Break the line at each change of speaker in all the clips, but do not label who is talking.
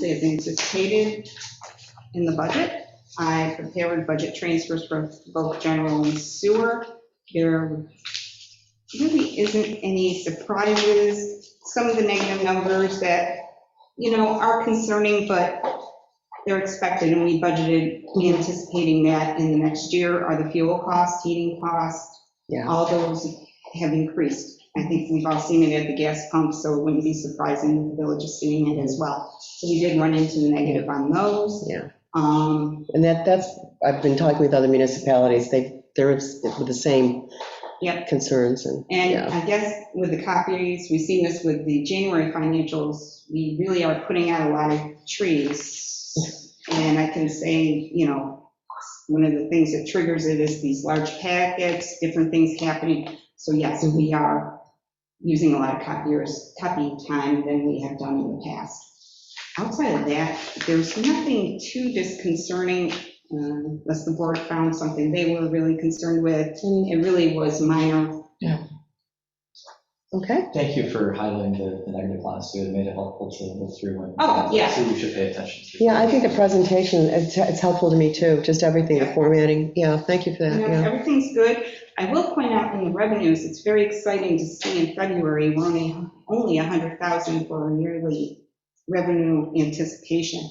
They've been anticipated in the budget. I prepared budget transfers for both general and sewer. There really isn't any surprises. Some of the negative numbers that, you know, are concerning, but they're expected, and we budgeted anticipating that in the next year are the fuel costs, heating costs.
Yeah.
All those have increased. I think we've all seen it at the gas pump, so it wouldn't be surprising the village is seeing it as well. So we did run into the negative on those.
Yeah.
Um,
And that, that's, I've been talking with other municipalities, they, they're with the same
Yep.
concerns and,
And
Yeah.
I guess with the copies, we've seen this with the January financials, we really are putting out a lot of trees. And I can say, you know, one of the things that triggers it is these large packets, different things happening. So yes, we are using a lot of copiers, copy time than we have done in the past. Outside of that, there's nothing too disconcerting, um, unless the board found something they were really concerned with. It really was minor
okay,
Thank you for highlighting the the negative lines, so it made it helpful to look through and.
Oh, yeah.
So you should pay attention to.
yeah, I think the presentation, it's, it's helpful to me too, just everything, the formatting, yeah, thank you for that,
You know,
yeah.
everything's good. I will point out in the revenues, it's very exciting to see in February, we're only, only 100,000 for our yearly revenue anticipation.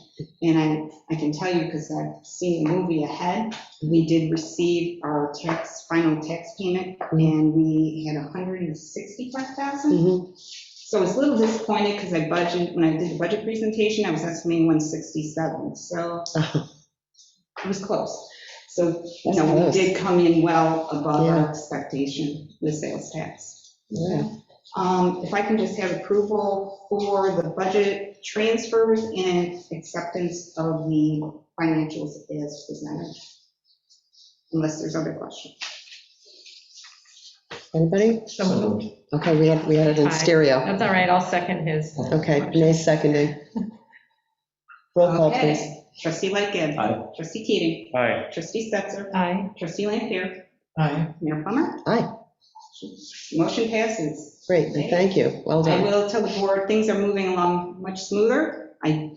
And I, I can tell you, because I've seen the movie ahead, we did receive our tax, final tax payment,
Mm-hmm.
and we had 165,000.
Mhm.
So I was a little disappointed, because I budgeted, when I did the budget presentation, I was estimating 167, so it was close. So, you
That's
know, we
close.
did come in well above our
Yeah.
expectation with sales tax.
Yeah.
Um, If I can just have approval for the budget transfers and acceptance of the financials as presented, unless there's other questions.
Anybody?
So moved.
Okay, we had, we had it in
Aye.
stereo.
That's all right, I'll second his.
Okay, Renee seconding. Roll call, please.
Okay. Trustee Lightgev.
Aye.
Trustee Keating.
Aye.
Trustee Stetser.
Aye.
Trustee Lampier.
Aye.
Mayor Plummer.
Aye.
Motion passes.
Great, and thank you, well
I
done.
will tell the board, things are moving along much smoother. I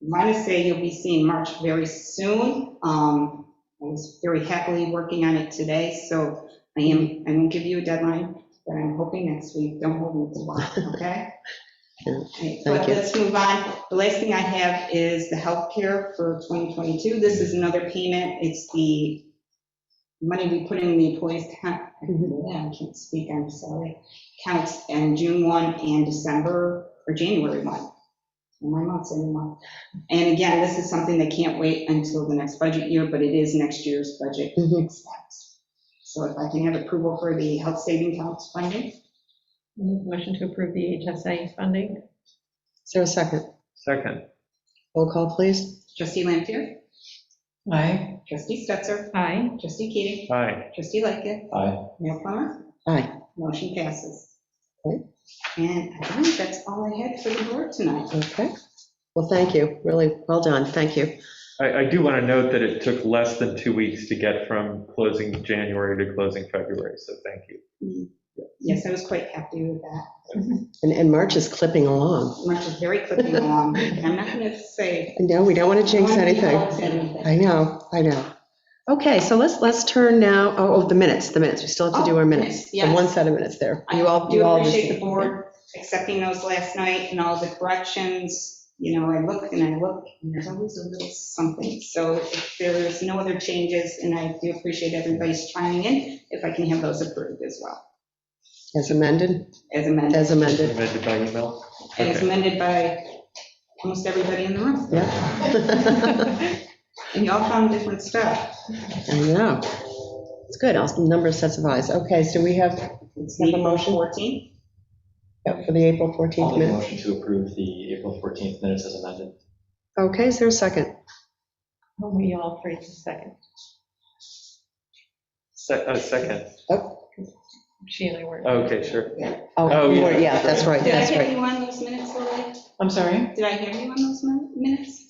want to say you'll be seeing March very soon. Um, I was very happily working on it today, so I am, I won't give you a deadline, but I'm hoping next week, don't hold me to one, okay?
Yeah,
Okay, But
thank you.
let's move on. The last thing I have is the healthcare for 2022. This is another payment. It's the money we put in the employees' account. I can't speak, I'm sorry counts in June 1 and December or January 1. My month's in the month. And again, this is something that can't wait until the next budget year, but it is next year's budget
Mhm.
expense. So if I can have approval for the health saving counts funding,
Motion to approve the HSA funding?
Is there a second?
Second.
Roll call, please.
trustee Lampier,
Aye.
trustee Stetser,
Aye.
trustee Keating,
Aye.
trustee Lightgev,
Aye.
Mayor Plummer,
Aye.
motion passes.
Okay.
And I think that's all I had for the board tonight.
Okay, well, thank you, really, well done, thank you.
I, I do want to note that it took less than two weeks to get from closing January to closing February, so thank you.
Yes, I was quite happy with that.
And, and March is clipping along.
March is very clipping along. I'm not going to say
No, we don't want to jinx
Won't be
anything.
helped anything.
I know, I know. Okay, so let's, let's turn now, oh, oh, the minutes, the minutes, we still have to do our
Oh,
minutes.
yes,
The one
yes.
set of minutes there.
I
You all,
do
you all.
appreciate the
received-
board accepting those last night and all the corrections. You know, I look and I look, and there's always a little something. So if there's no other changes, and I do appreciate everybody's chiming in, if I can have those approved as well,
As amended,
as amended,
as amended,
Amended by email?
as amended by almost everybody in the room.
yeah. I
And y'all found different stuff.
know. It's good, I'll- number of sets of eyes. Okay, so we have,
It's
Have a
April
motion?
14.
yeah, for the April
I'll
14th
make a
minute.
motion to approve the April 14th minutes as amended.
Okay, is there a second?
We all three to second.
Se- uh, Second,
She and I were.
okay, sure.
Oh,
Oh,
you were-
yeah.
yeah, that's right,
Did I
that's
hear
right.
you on those minutes, Lily?
I'm sorry?
Did I hear you on those min- minutes?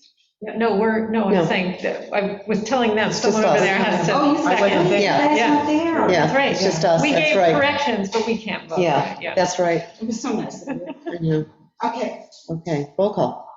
Yeah, No, we're, no,
No.
I'm saying, that- I was telling them,
It's
someone
just
over
us.
there has to.
Oh, you
I wasn't
seconded.
there.
Yeah.
That's
Yeah.
not there.
Yeah,
right.
it's just us,
We
that's
gave
right.
corrections, but we can't vote.
Yeah, That's right.
It was so nice of you.
I know.
Okay,
Okay, roll call.